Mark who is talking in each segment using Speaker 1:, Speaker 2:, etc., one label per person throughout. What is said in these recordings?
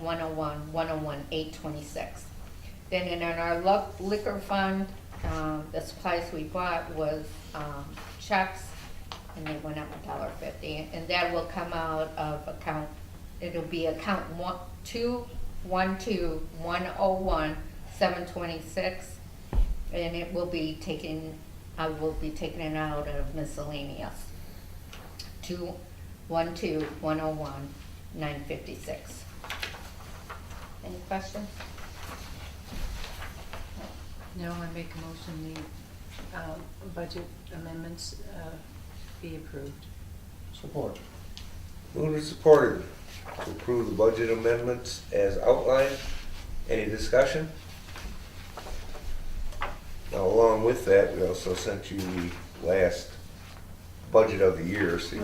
Speaker 1: 101, 101, 826. Then in our luck- liquor fund, um, the supplies we bought was um, checks, and they went up a dollar fifty, and that will come out of account, it'll be account one, two, one, two, one oh one, seven twenty-six, and it will be taken, I will be taking it out of miscellaneous. Two, one, two, one oh one, nine fifty-six. Any questions?
Speaker 2: No, I make a motion the uh, budget amendments uh, be approved.
Speaker 3: Support.
Speaker 4: Moved and supported to approve the budget amendments as outlined. Any discussion? Now, along with that, we also sent you the last budget of the year, so you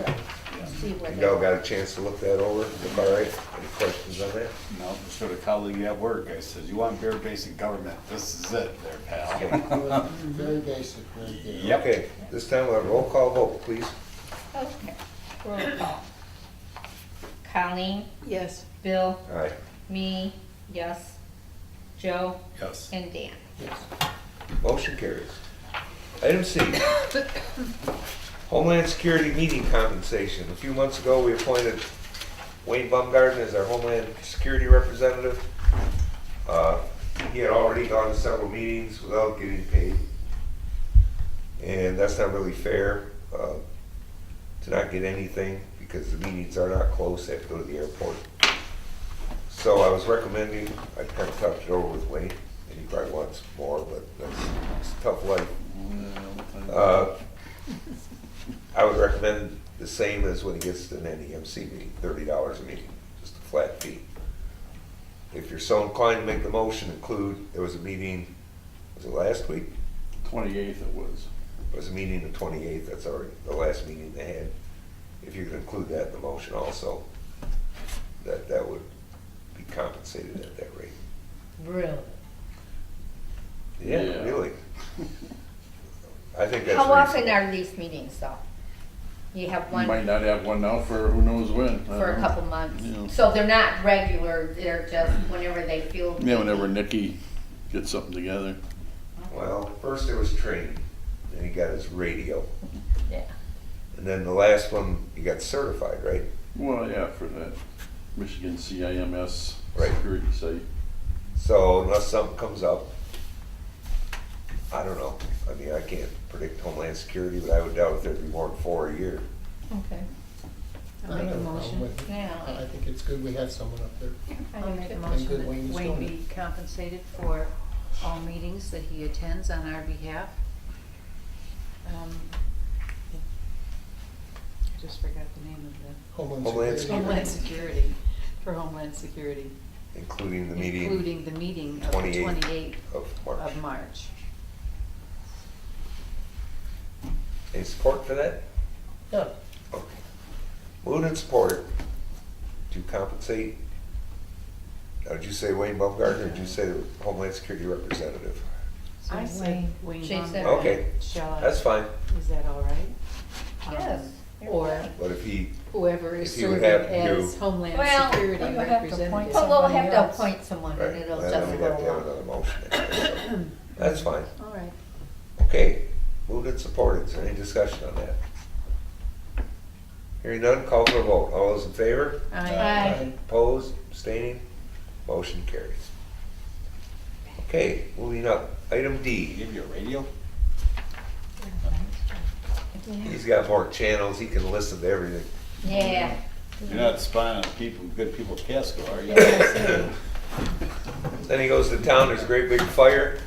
Speaker 1: See what
Speaker 4: you
Speaker 1: they-
Speaker 4: all got a chance to look that over. Look all right? Any questions on that?
Speaker 5: No, I showed a colleague at work, I said, you want bare basic government, this is it there, pal.
Speaker 3: It was Very basic, right there.
Speaker 5: Yep.
Speaker 4: Okay, this time we'll have a roll call vote, please.
Speaker 1: Okay. Roll call. Colleen,
Speaker 2: Yes.
Speaker 1: Bill,
Speaker 4: Aye.
Speaker 1: me, yes, Joe,
Speaker 5: Yes.
Speaker 1: and Dan.
Speaker 3: Yes.
Speaker 4: Motion carries. Item C. Homeland Security meeting compensation. A few months ago, we appointed Wayne Baumgarten as our Homeland Security Representative. Uh, He had already gone to several meetings without getting paid. And that's not really fair uh, to not get anything because the meetings are not close. They have to go to the airport. So I was recommending, I kind of talked it over with Wayne, and he probably wants more, but that's it's a tough life. Uh, I would recommend the same as when he gets an NEMC meeting, thirty dollars a meeting, just a flat fee. If you're so inclined to make the motion, include, there was a meeting, was it last week?
Speaker 5: Twenty-eighth it was.
Speaker 4: There was a meeting the twenty-eighth, that's already the last meeting they had. If you could include that in the motion also, that, that would be compensated at that rate.
Speaker 1: Really?
Speaker 4: Yeah,
Speaker 5: Yeah.
Speaker 4: really. I think that's.
Speaker 1: How often
Speaker 4: reasonable.
Speaker 1: are these meetings though? You have
Speaker 5: You might
Speaker 1: one
Speaker 5: not have one now for who knows when. Uh-huh.
Speaker 1: for a
Speaker 5: I
Speaker 4: uh,
Speaker 5: don't
Speaker 1: couple
Speaker 5: know.
Speaker 1: months,
Speaker 5: Yeah.
Speaker 1: so they're not regular, they're just whenever they feel.
Speaker 5: Yeah, whenever Nikki gets something together.
Speaker 4: Well, first there was training, then he got his radio,
Speaker 1: Yeah.
Speaker 4: and then the last one, he got certified, right?
Speaker 5: Well, yeah, for that Michigan CIMS
Speaker 4: Right.
Speaker 5: security site.
Speaker 4: So unless something comes up, I don't know. I mean, I can't predict Homeland Security, but I would doubt if there'd be more than four a year.
Speaker 1: Okay.
Speaker 2: I make
Speaker 3: I
Speaker 2: a
Speaker 3: don't know,
Speaker 2: motion.
Speaker 3: but
Speaker 1: Yeah.
Speaker 3: I think it's good we have someone up there.
Speaker 2: I'll make a
Speaker 3: And good
Speaker 2: motion that
Speaker 3: Wayne is
Speaker 2: Wayne
Speaker 3: doing
Speaker 2: be compensated for all meetings that he attends on our behalf. Um, I just forgot the name of
Speaker 4: Homeland
Speaker 3: Homeland
Speaker 2: the,
Speaker 3: Security.
Speaker 2: Homeland Security, for Homeland Security.
Speaker 4: Including the meeting
Speaker 2: Including the meeting of the
Speaker 4: 28th.
Speaker 2: twenty-eighth
Speaker 4: of March.
Speaker 2: of March.
Speaker 4: Any support for that?
Speaker 3: Yeah,
Speaker 4: Okay. Moved and supported to compensate, now, did you say Wayne Baumgartner, or did you say the Homeland Security Representative?
Speaker 2: So
Speaker 6: I say
Speaker 2: Wayne
Speaker 1: She said-
Speaker 2: Baumgartner.
Speaker 4: Okay.
Speaker 2: Shall I?
Speaker 4: That's fine,
Speaker 2: Is that all right?
Speaker 1: Yes.
Speaker 2: Um, Or
Speaker 4: but if he
Speaker 2: whoever is
Speaker 4: If you would
Speaker 2: serving
Speaker 4: have
Speaker 2: as
Speaker 4: to-
Speaker 2: Homeland
Speaker 1: Well,
Speaker 2: Security
Speaker 6: you would have to
Speaker 2: representative.
Speaker 6: point
Speaker 1: But we'll
Speaker 6: Somebody
Speaker 1: have to
Speaker 6: else.
Speaker 1: appoint someone
Speaker 4: Right,
Speaker 1: and it'll
Speaker 4: then
Speaker 1: just
Speaker 4: we'd
Speaker 1: go
Speaker 4: have to have
Speaker 1: along.
Speaker 4: another motion. That's fine,
Speaker 2: All right.
Speaker 4: okay, moved and supported, is there any discussion on that? Hearing none, call for a vote, all those in favor,
Speaker 2: I-
Speaker 1: Aye.
Speaker 4: opposed, abstaining, motion carries. Okay, moving up, item D,
Speaker 5: Give you a radio?
Speaker 4: he's got more channels, he can listen to everything.
Speaker 1: Yeah.
Speaker 5: You're not spying on people, good people at Casco, are you?
Speaker 4: Then he goes to town, there's a great big fire,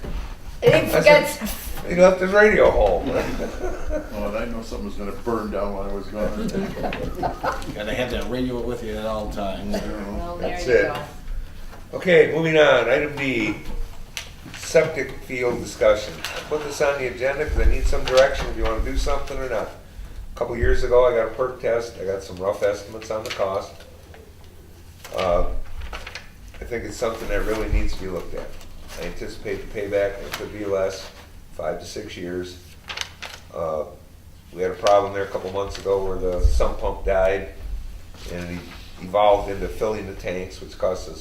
Speaker 1: It
Speaker 4: That's
Speaker 1: gets,
Speaker 4: he left his radio home.
Speaker 5: Oh, and I know something was gonna burn down while I was gone. Gotta have that radio with you at all times.
Speaker 1: well, there
Speaker 4: That's
Speaker 1: you
Speaker 4: it.
Speaker 1: go.
Speaker 4: Okay, moving on, item D, septic field discussion. I Put this on the agenda because I need some direction if you want to do something or not. A Couple years ago, I got a perk test, I got some rough estimates on the cost. Uh, I think it's something that really needs to be looked at. I anticipate the payback, it could be less, five to six years. Uh, We had a problem there a couple months ago where the sump pump died and it evolved into filling the tanks, which cost us